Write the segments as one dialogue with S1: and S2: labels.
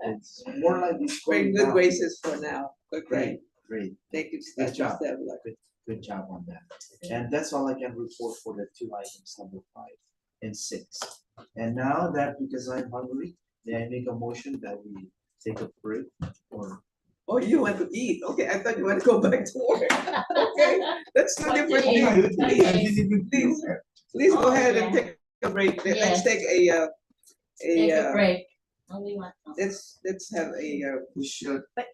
S1: it's more like it's
S2: We're
S1: going
S2: in good
S1: down.
S2: graces for now, but great,
S1: Great, great,
S2: thank you,
S1: Good
S2: thank you,
S1: job.
S2: Stella.
S1: good job on that. And that's all I can report for the two items, number five and six. And now that because I'm hungry, may I make a motion that we take a break or
S2: Oh, you want to eat, okay, I thought you want to go back to work, okay, that's two
S3: What do
S2: different
S3: you-
S2: things. Please, please, please go
S3: Oh,
S2: ahead and
S3: yeah.
S2: take a break, Let- let's
S3: Yes.
S2: take a, uh, a,
S3: Take a
S2: uh,
S3: break. Only one.
S2: let's, let's have a, uh,
S4: We should.
S3: But-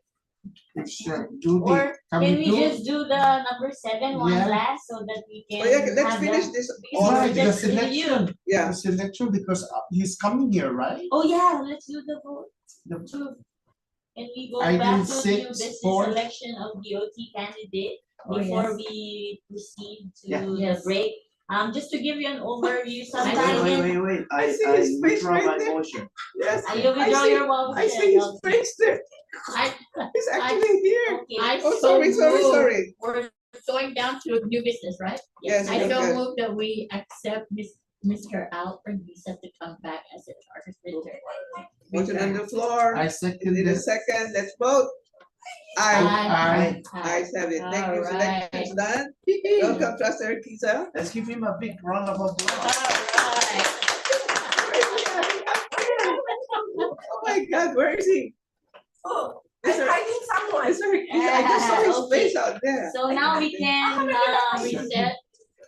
S4: We should do the,
S3: Or
S4: can
S3: can
S4: we
S3: we
S4: do?
S3: just do the number seven one
S4: Yeah.
S3: last so that we can
S2: oh, yeah,
S3: have
S2: let's finish
S3: them?
S2: this, all
S3: Because we're
S4: Right,
S2: right,
S4: the
S3: just review.
S4: selection,
S2: yeah,
S4: the selection, because uh, he's coming here, right?
S3: Oh, yeah, let's do the vote.
S4: The-
S3: True. Can we go
S4: Item
S3: back to
S4: six,
S3: new business
S4: four.
S3: selection of DOT candidate
S1: Oh,
S3: before we proceed to
S1: Yeah.
S3: the
S5: Yes.
S3: break? Um, just to give you an overview,
S1: Wait,
S3: sometime
S1: Wait,
S3: in,
S1: wait, wait,
S2: I
S1: I
S2: see
S1: I
S2: his face
S1: withdraw
S2: right
S1: my
S2: there.
S1: motion.
S2: yes,
S3: I
S2: I
S3: will withdraw
S2: see-
S3: your vote.
S2: I see his face there,
S6: I,
S2: he's
S6: I-
S2: actually here,
S3: Okay.
S6: I
S2: oh,
S6: so
S2: sorry, sorry,
S6: moved.
S2: sorry,
S6: We're going down to new business, right?
S2: yes,
S6: I
S2: yes,
S6: so
S2: yes.
S6: move that we accept Miss, Mr. Alfred Lisa to come back as a charter visitor.
S2: Motion on the floor,
S4: I second
S2: in a
S4: this.
S2: second, let's vote. I,
S4: Aye.
S2: I have it, thank you,
S6: Alright.
S2: selectors done, welcome, trustee Urquiza.
S1: Let's give him a big round of applause.
S6: Alright.
S2: Oh my god, where is he?
S7: Oh,
S2: Is
S7: I'm
S2: there-
S7: hiding someone.
S2: is there- is- I just saw his face out there.
S3: So now we can uh reset.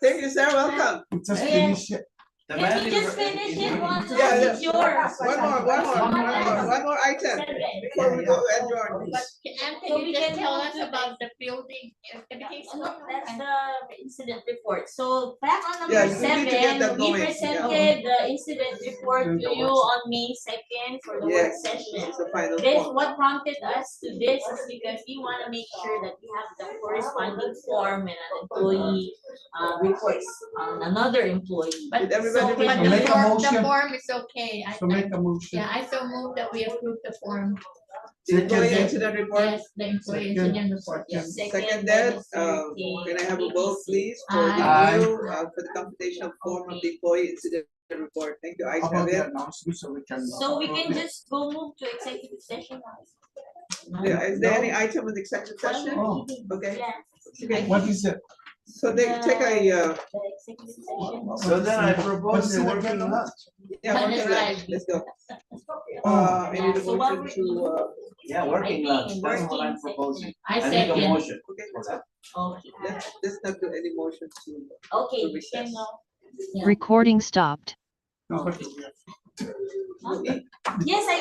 S2: Thank you, Sarah, welcome.
S4: We Just
S3: Yeah.
S4: finish it.
S1: The
S3: Can
S1: man
S3: we
S1: is
S3: just
S1: re-
S3: finish
S1: is
S3: it
S1: ready.
S3: one time?
S2: Yeah, yeah.
S3: It's yours.
S2: One more, one more, one more, one more item
S3: Seven.
S2: before we go adjourn.
S6: But
S3: So
S6: Anthony,
S3: we
S6: just
S3: can
S6: tell
S3: move
S6: us
S3: to
S6: about the building, if everything's
S3: So That's
S6: okay.
S3: the incident report. So back on
S2: Yeah,
S3: number
S2: you need to get that
S3: seven, we
S2: going, yeah.
S3: presented the incident report to you on May second for the work
S2: Yes.
S3: session.
S2: It's the final
S3: This,
S2: one.
S3: what prompted us to this is because we wanna make sure that we have the corresponding form and an employee uh reports on another employee.
S6: But
S2: Did everybody
S6: so- but
S2: read
S4: it?
S6: the
S4: Make a
S6: form, the
S4: motion.
S6: form is okay. I,
S4: So make
S6: I-
S4: a motion.
S6: yeah, I so move that we approve the form.
S2: The employee
S4: Second.
S2: incident report,
S6: Yes, the employee
S4: Second.
S6: incident report, yes.
S2: second that,
S3: then
S2: uh, can I have a vote please for
S6: Aye.
S2: review, uh, for the computational form of the employee incident report? Thank you, I
S4: How
S2: have
S4: About
S2: it.
S4: the announcement, so we can.
S3: So we can
S4: approve it.
S3: just go move to executive session now.
S2: Yeah, is there any item in the executive session?
S4: Oh.
S2: Okay,
S3: Yeah,
S2: okay.
S4: What is it?
S2: so they take a, uh,
S3: the executive session.
S1: So then I propose
S4: What's
S1: a
S4: in the
S1: working
S4: menu?
S1: lunch.
S2: yeah,
S6: That is
S2: okay, let's-
S6: right.
S2: let's go. Uh,
S4: Oh,
S2: I need a
S3: So what
S2: motion
S3: we-
S2: to, uh,
S1: Yeah, working
S3: Working,
S1: lunch, that's what I'm
S3: working
S1: proposing.
S6: I
S1: I make a
S6: second,
S1: motion.
S2: okay,
S1: for
S2: let's
S1: that.
S3: Okay,
S2: Let's, let's not do any motion to,
S3: okay, uh,
S2: To
S3: we can
S2: recess.
S3: now-
S5: Recording stopped.
S4: No, but we have
S2: to eat.
S3: Yes, I